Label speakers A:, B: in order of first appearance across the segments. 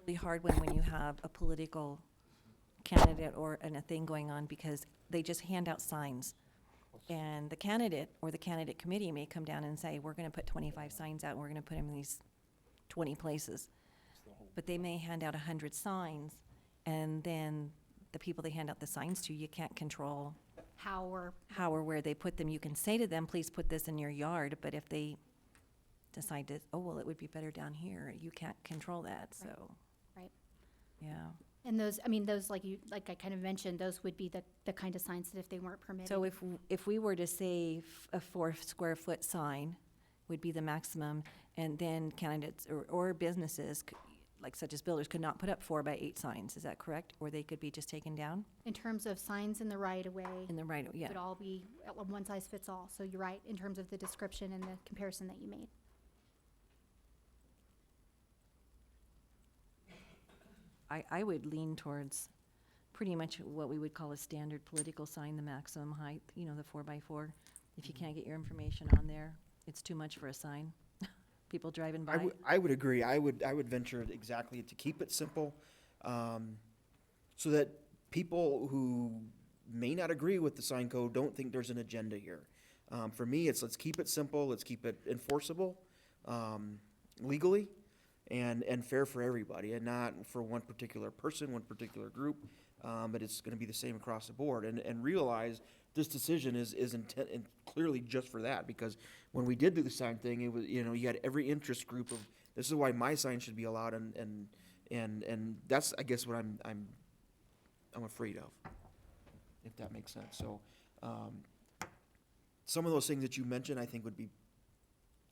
A: really hard one when you have a political candidate or, and a thing going on, because they just hand out signs. And the candidate or the candidate committee may come down and say, we're gonna put twenty-five signs out, and we're gonna put them in these twenty places. But they may hand out a hundred signs, and then the people they hand out the signs to, you can't control
B: how we're,
A: how or where they put them. You can say to them, please put this in your yard, but if they decide to, oh, well, it would be better down here, you can't control that, so.
B: Right.
A: Yeah,
B: and those, I mean, those, like you, like I kind of mentioned, those would be the, the kind of signs that if they weren't permitted.
A: so if, w- if we were to say f- a four square foot sign would be the maximum, and then candidates or, or businesses, c- like such as builders, could not put up four by eight signs, is that correct? Or they could be just taken down
B: In terms of signs in the right of way,
A: in the right, yeah,
B: would all be uh, one size fits all. So you're right, in terms of the description and the comparison that you made.
A: I, I would lean towards pretty much what we would call a standard political sign, the maximum height, you know, the four by four. If you can't get your information on there, it's too much for a sign. People driving
C: I
A: by,
C: would, I would agree. I would, I would venture exactly to keep it simple, um, so that people who may not agree with the sign code don't think there's an agenda here. Um, for me, it's let's keep it simple, let's keep it enforceable, um, legally, and, and fair for everybody, and not for one particular person, one particular group. Um, but it's gonna be the same across the board, and, and realize this decision is, is intent, and clearly just for that, because when we did do the sign thing, it was, you know, you had every interest group of, this is why my sign should be allowed, and, and, and, and that's, I guess, what I'm, I'm, I'm afraid of, if that makes sense, so, um, some of those things that you mentioned, I think would be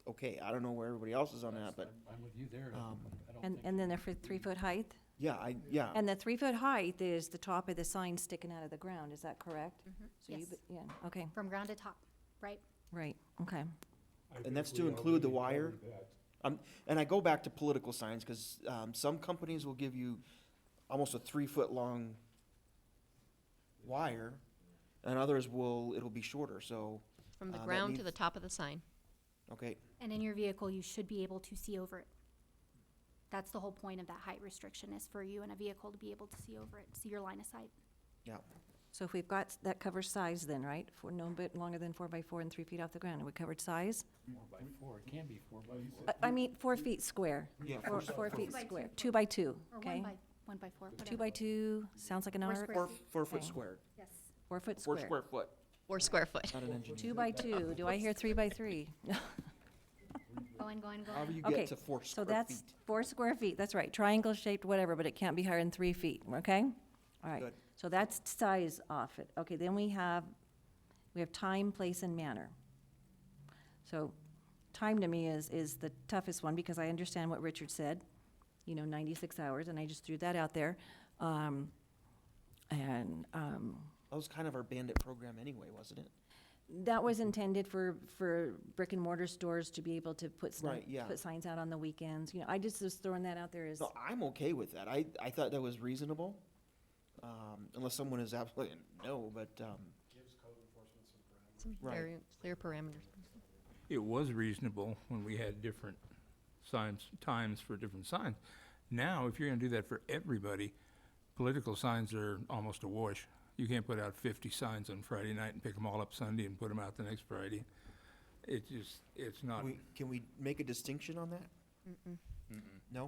C: okay, I don't know where everybody else is on that, but,
D: I'm- I'm with you there. I
C: um,
D: I don't
A: and,
D: think-
A: and then the fr- three foot height?
C: yeah, I, yeah,
A: And the three foot height is the top of the sign sticking out of the ground, is that correct? So you
B: Mm-hmm. Yes.
A: b- Yeah, okay,
B: From ground to top, right?
A: right, okay.
D: I
C: and
D: think
C: that's
D: we
C: to include the
D: already
C: wire.
D: covered that.
C: Um, and I go back to political signs, cause, um, some companies will give you almost a three-foot-long wire, and others will, it'll be shorter, so,
E: From the
C: Uh, that
E: ground to
C: means-
E: the top of the sign.
C: okay,
B: And in your vehicle, you should be able to see over it. That's the whole point of that height restriction is for you in a vehicle to be able to see over it, see your line of sight.
C: yeah.
A: So if we've got, s- that covers size then, right? For no bit longer than four by four and three feet off the ground, we covered size?
D: Four by four, it can be four by four.
A: I, I mean, four feet square,
C: Yeah,
A: four,
C: four-
A: four
B: four
A: feet
B: by two.
A: square, two by two,
B: Or
A: okay?
B: one by, one by four,
A: Two
B: whatever.
A: by two, sounds like an
B: Or
A: arc,
B: square
C: Four,
B: feet.
C: four foot
A: Okay.
C: squared,
B: Yes.
A: four foot
C: four
A: square.
C: square foot,
E: Or square foot.
C: not an engineer.
A: Two by two, do I hear three by three?
B: Going, going,
C: However
B: going.
C: you
A: Okay,
C: get to four
A: So
C: square feet.
A: that's four square feet, that's right, triangle shaped, whatever, but it can't be higher than three feet, okay? All right,
C: Good.
A: so that's size off it, okay, then we have, we have time, place, and manner. So, time to me is, is the toughest one, because I understand what Richard said, you know, ninety-six hours, and I just threw that out there. Um, And, um,
C: That was kind of our bandit program anyway, wasn't it?
A: That was intended for, for brick and mortar stores to be able to put, sni-
C: Right, yeah.
A: put signs out on the weekends, you know, I just was throwing that out there as,
C: So I'm okay with that. I, I thought that was reasonable, um, unless someone is absolutely, no, but, um,
E: Some
C: Right.
E: very clear parameters.
F: it was reasonable when we had different signs, times for different signs. Now, if you're gonna do that for everybody, political signs are almost a wash. You can't put out fifty signs on Friday night and pick them all up Sunday and put them out the next Friday. It just, it's not,
C: we, can we make a distinction on that? No?
A: Um,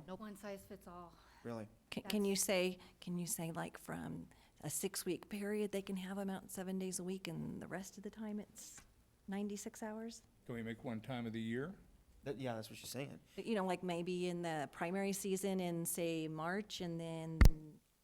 E: Nope.
B: One size fits all.
C: Really?
A: can, can you say, can you say like from a six-week period, they can have them out seven days a week, and the rest of the time it's ninety-six hours?
F: can we make one time of the year?
C: That, yeah, that's what she's saying.
A: You know, like maybe in the primary season in, say, March, and then,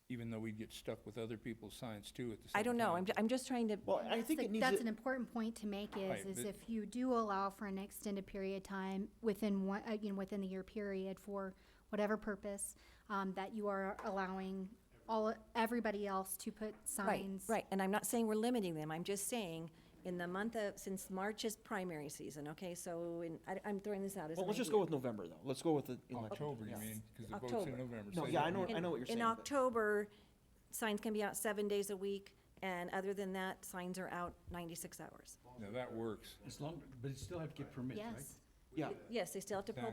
F: Even though we'd get stuck with other people's signs too at the same time.
A: I don't know, I'm, ju- I'm just trying to,
C: Well, I
B: That's
C: think
B: the-
C: it needs,
B: That's
C: to-
B: an important point to make
F: Right,
B: is, is
F: but-
B: if you do allow for an extended period of time within one, uh, you know, within the year period for whatever purpose, um, that you are allowing all, everybody else to put
A: right,
B: signs.
A: right, and I'm not saying we're limiting them, I'm just saying, in the month of, since March is primary season, okay, so, in I, I'm throwing this out as
C: well,
A: an
C: let's just
A: idea.
C: go with November, though. Let's go with the election.
F: October, you
C: Yeah.
F: mean, because the vote's
A: October.
F: in November.
C: No,
F: so
C: yeah, I
F: that
C: know,
F: would-
C: I know what you're saying.
A: In
C: but-
A: October, signs can be out seven days a week, and other than that, signs are out ninety-six hours.
F: Now, that works.
D: As long, but you still have to get permits, right?
B: Yes.
C: Yeah.
A: Yes, they still have to pull